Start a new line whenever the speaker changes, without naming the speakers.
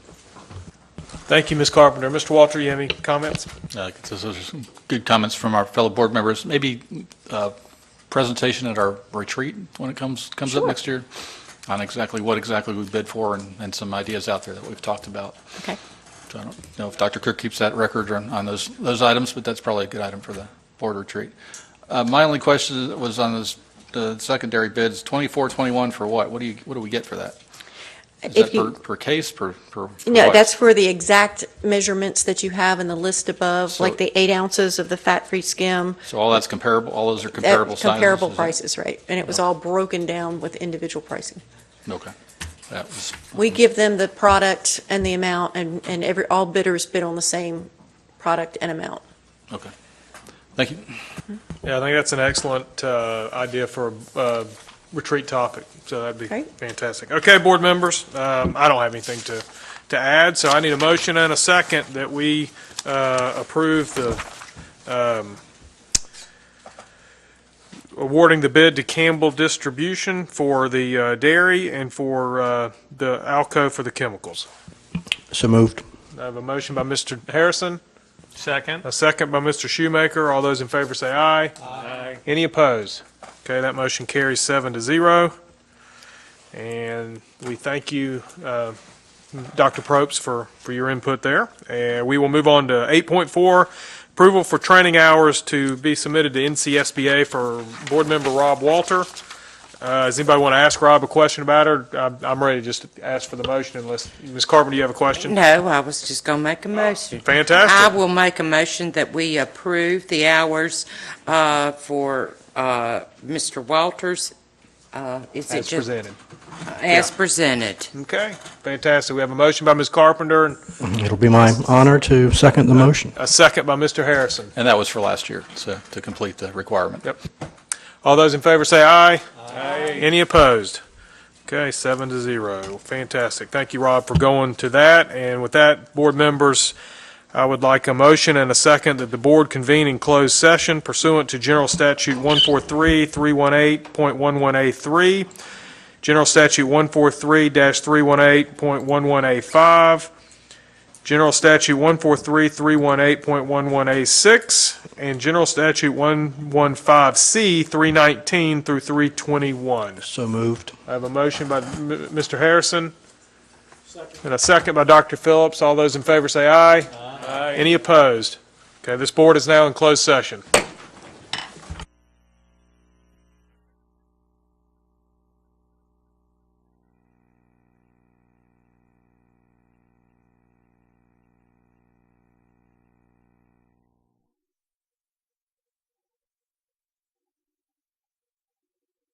Thank you, Ms. Carpenter. Mr. Walter, you have any comments?
Uh, Those are some good comments from our fellow board members. Maybe uh, presentation at our retreat when it comes, comes up next year on exactly what exactly we bid for and, and some ideas out there that we've talked about.
Okay.
So I don't know if Dr. Cook keeps that record on, on those, those items, but that's probably a good item for the board retreat. Uh, My only question was on this, the secondary bids, 24, 21 for what? What do you, what do we get for that? Is that
If
per,
you,
per case, per, per? per
no,
what?
that's for the exact measurements that you have in the list above,
So-
like the eight ounces of the fat-free skim.
So all that's comparable, all those are
at
comparable sizes?
Comparable
is it? Oh.
prices, right. And it was all broken down with individual pricing.
Okay. That was
We give them the product and the amount, and, and every, all bidders bid on the same product and amount.
Okay. Thank you.
Yeah, I think that's an excellent uh, idea for a uh, retreat topic, so that'd be
Okay.
fantastic. Okay, board members, um, I don't have anything to, to add, so I need a motion and a second that we uh, approve the um, awarding the bid to Campbell Distribution for the uh, dairy and for uh, the Alco for the chemicals.
So moved.
I have a motion by Mr. Harrison.
Second.
A second by Mr. Shoemaker. All those in favor say aye. Aye. Any opposed? Okay, that motion carries seven to zero. And we thank you, uh, Dr. Probst, for, for your input there. And we will move on to 8.4, approval for training hours to be submitted to NCSBA for Board Member Rob Walter. Uh, Does anybody want to ask Rob a question about her? I'm- I'm ready to just ask for the motion unless, Ms. Carpenter, you have a question?
No, I was just going to make a motion.
Oh, Fantastic.
I will make a motion that we approve the hours uh, for uh, Mr. Walters. uh, Is it
As
just
presented.
As presented.
Okay, fantastic. We have a motion by Ms. Carpenter and
It'll be my honor to second the motion.
a second by Mr. Harrison.
And that was for last year, so to complete the requirement.
All those in favor say aye. Aye. Any opposed? Okay, seven to zero. Fantastic. Thank you, Rob, for going to that. And with that, board members, I would like a motion and a second that the board convene in closed session pursuant to General Statute 143-318.11A3, General Statute 143-318.11A5, General Statute 143-318.11A6, and General Statute 115C 319 through 321.
So moved.
I have a motion by M- Mr. Harrison, and a second by Dr. Phillips. All those in favor say aye. Aye. Any opposed? Okay, this board is now in closed session.